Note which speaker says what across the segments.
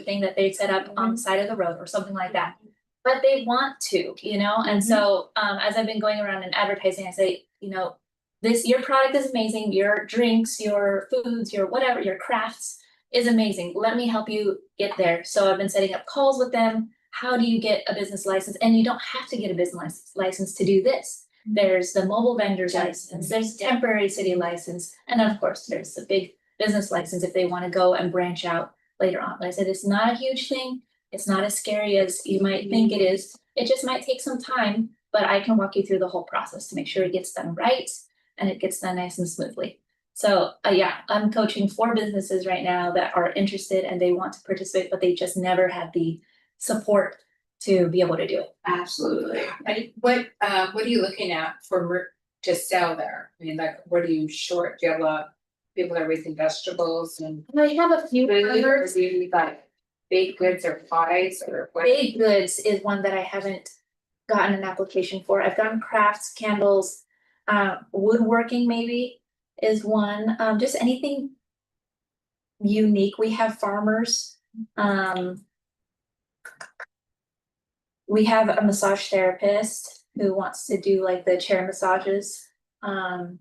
Speaker 1: thing that they set up on the side of the road or something like that. But they want to, you know, and so um as I've been going around and advertising, I say, you know, this, your product is amazing, your drinks, your foods, your whatever, your crafts is amazing. Let me help you get there. So I've been setting up calls with them. How do you get a business license? And you don't have to get a business license to do this. There's the mobile vendor's license, there's temporary city license, and of course, there's the big business license if they want to go and branch out later on. But I said, it's not a huge thing. It's not as scary as you might think it is. It just might take some time, but I can walk you through the whole process to make sure it gets done right and it gets done nice and smoothly. So, uh, yeah, I'm coaching four businesses right now that are interested and they want to participate, but they just never had the support to be able to do it.
Speaker 2: Absolutely. And what, uh, what are you looking at for mer- to sell there? I mean, like, what are you short? Do you have a lot, people that are raising vegetables and
Speaker 1: I have a few
Speaker 2: food, or
Speaker 1: others.
Speaker 2: do you need, like baked goods or pies or what?
Speaker 1: Baked goods is one that I haven't gotten an application for. I've done crafts, candles, uh, woodworking maybe is one, um, just anything unique. We have farmers, um, we have a massage therapist who wants to do like the chair massages. Um,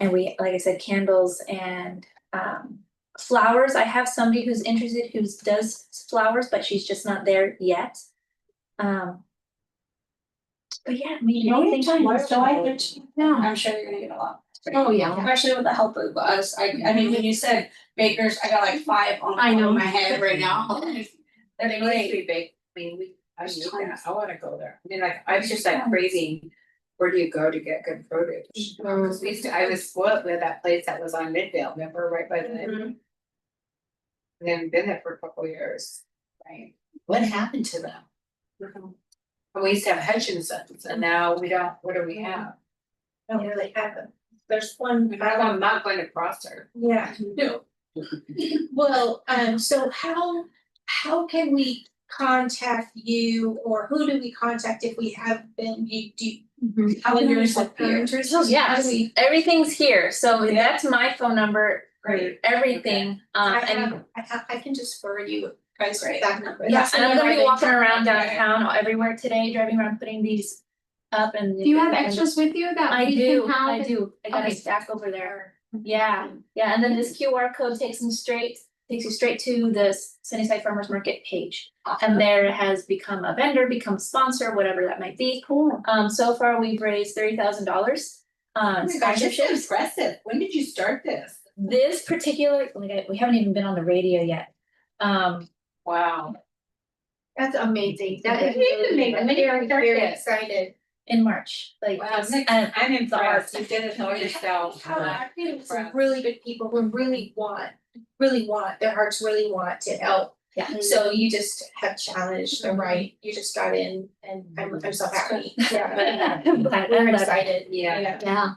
Speaker 1: and we, like I said, candles and, um, flowers. I have somebody who's interested who does flowers, but she's just not there yet. Um. But yeah, I mean,
Speaker 3: You know,
Speaker 1: anything-
Speaker 3: anytime, July thirteenth, now, I'm sure you're gonna get a lot.
Speaker 4: Oh, yeah.
Speaker 3: Especially with the help of us, I, I mean, when you said bakers, I got like five on the
Speaker 4: I
Speaker 3: top
Speaker 4: know.
Speaker 3: of my head right now.
Speaker 2: That
Speaker 3: They're
Speaker 2: needs to
Speaker 3: great.
Speaker 2: be baked. I mean, we, I
Speaker 3: There's
Speaker 2: need
Speaker 3: tons.
Speaker 2: that. I wanna go there. I mean, like, I was just like craving, where do you go to get good produce? Cause we used to, I was spoiled with that place that was on Midvale, remember, right by the. They haven't been there for a couple years, right?
Speaker 5: What happened to them?
Speaker 2: And we used to have Hutchinson's and now we don't, what do we have?
Speaker 6: don't really have them. There's one,
Speaker 2: We have a not going across her.
Speaker 6: yeah, no. Well, um, so how, how can we contact you or who do we contact if we have been, you do?
Speaker 3: Calendars up here.
Speaker 6: Calendars, How
Speaker 1: Yes,
Speaker 6: do we,
Speaker 1: everything's here, so
Speaker 6: Yeah.
Speaker 1: that's my phone number, for
Speaker 2: Great.
Speaker 1: everything, um,
Speaker 6: I
Speaker 1: and
Speaker 6: have, I have, I can just forward you guys
Speaker 2: Great.
Speaker 6: that number.
Speaker 1: Yes,
Speaker 6: That's
Speaker 1: and I'm
Speaker 6: whenever
Speaker 1: gonna be
Speaker 6: they-
Speaker 1: walking around
Speaker 6: Okay.
Speaker 1: downtown or everywhere today, driving around, putting these up and.
Speaker 4: Do you have extras with you that
Speaker 1: I
Speaker 4: we can
Speaker 1: do,
Speaker 4: have?
Speaker 1: I do, I got a
Speaker 4: Okay.
Speaker 1: stack over there, yeah, yeah, and then this QR code takes them straight, takes you straight to the Sunnyside Farmers Market page. And there has become a vendor, become a sponsor, whatever that might be,
Speaker 4: Cool.
Speaker 1: um, so far we've raised thirty thousand dollars.
Speaker 2: Oh
Speaker 1: Um,
Speaker 2: my gosh, this
Speaker 1: sponsorships,
Speaker 2: is impressive. When did you start this?
Speaker 1: this particular, like, I- we haven't even been on the radio yet, um,
Speaker 2: Wow.
Speaker 6: That's amazing. That is
Speaker 2: You need to make
Speaker 6: really,
Speaker 2: a
Speaker 6: I'm
Speaker 2: video
Speaker 6: very, very
Speaker 2: circuit.
Speaker 6: excited.
Speaker 1: in March, like.
Speaker 2: Wow,
Speaker 1: it's-
Speaker 2: Nick,
Speaker 1: and-
Speaker 2: I'm impressed.
Speaker 1: impressed.
Speaker 2: You did it all yourself.
Speaker 6: How I feel some
Speaker 2: Friends.
Speaker 6: really good people who really want, really want, their hearts really want to help.
Speaker 1: Yeah.
Speaker 6: So you just have challenged
Speaker 2: Mm-hmm.
Speaker 6: the right, you just got in and I'm I'm so happy. Yeah.
Speaker 1: I'm glad- I'm
Speaker 6: We're
Speaker 1: glad.
Speaker 6: excited.
Speaker 2: Yeah.
Speaker 4: Yeah.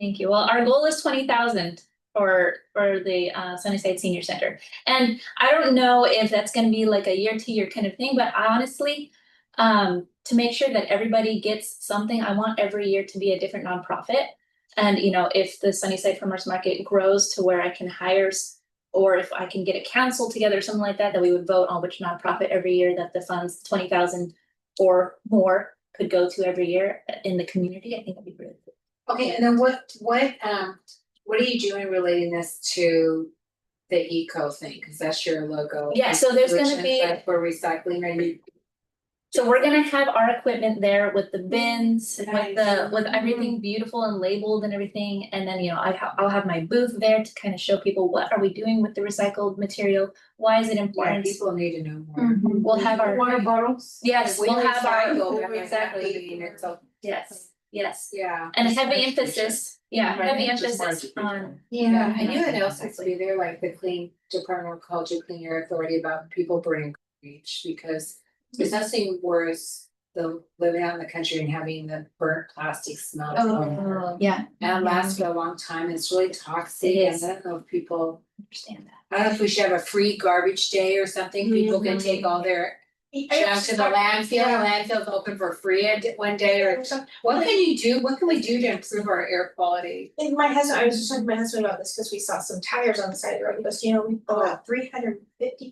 Speaker 1: Thank you. Well, our goal is twenty thousand for for the uh Sunnyside Senior Center. And I don't know if that's gonna be like a year to year kind of thing, but honestly, um, to make sure that everybody gets something, I want every year to be a different nonprofit. And you know, if the Sunnyside Farmers Market grows to where I can hire s- or if I can get a council together, something like that, that we would vote on which nonprofit every year that the funds twenty thousand or more could go to every year in the community, I think that'd be really cool.
Speaker 2: Okay, and then what, what, um, what are you doing relating this to the eco thing? Cause that's your logo.
Speaker 1: Yeah, so there's
Speaker 2: which
Speaker 1: gonna be,
Speaker 2: is like For recycling and re-
Speaker 1: so we're gonna have our equipment there with the bins, with the,
Speaker 3: Nice.
Speaker 1: with everything beautiful and labeled and everything. And then, you know, I ha- I'll have my booth there to kind of show people what are we doing with the recycled material? Why is it
Speaker 2: yeah,
Speaker 1: important?
Speaker 2: people need to know more.
Speaker 6: Mm-hmm.
Speaker 1: We'll have our,
Speaker 4: Water bottles.
Speaker 1: yes, we'll have
Speaker 2: recycle,
Speaker 1: our,
Speaker 2: remember,
Speaker 1: exactly,
Speaker 2: cleaning it, so-
Speaker 1: yes, yes.
Speaker 2: Yeah.
Speaker 1: And a heavy emphasis, yeah,
Speaker 2: Right,
Speaker 1: heavy
Speaker 5: just more
Speaker 1: emphasis
Speaker 5: education.
Speaker 1: on,
Speaker 2: Yeah, I knew it else has to
Speaker 1: Exactly.
Speaker 2: be there, like the clean Department of Ecology, Clean Air Authority about people burning garbage because there's nothing worse than living out in the country and having the burnt plastic smell.
Speaker 6: Oh.
Speaker 1: yeah,
Speaker 2: And uh, it lasts for a long time, it's really toxic,
Speaker 1: Mm-hmm. It
Speaker 2: and
Speaker 1: is.
Speaker 2: I don't know if people,
Speaker 1: understand that.
Speaker 2: I don't know if we should have a free garbage day or something, people
Speaker 1: Mm-hmm.
Speaker 2: can take all their junk to the landfill, and landfill's open for free a d- one day or. What can you do, what can we do to improve our air quality?
Speaker 6: And my husband, I was just talking to my husband about this, because we saw some tires on the side of the road, he goes, you know, we bought three hundred fifty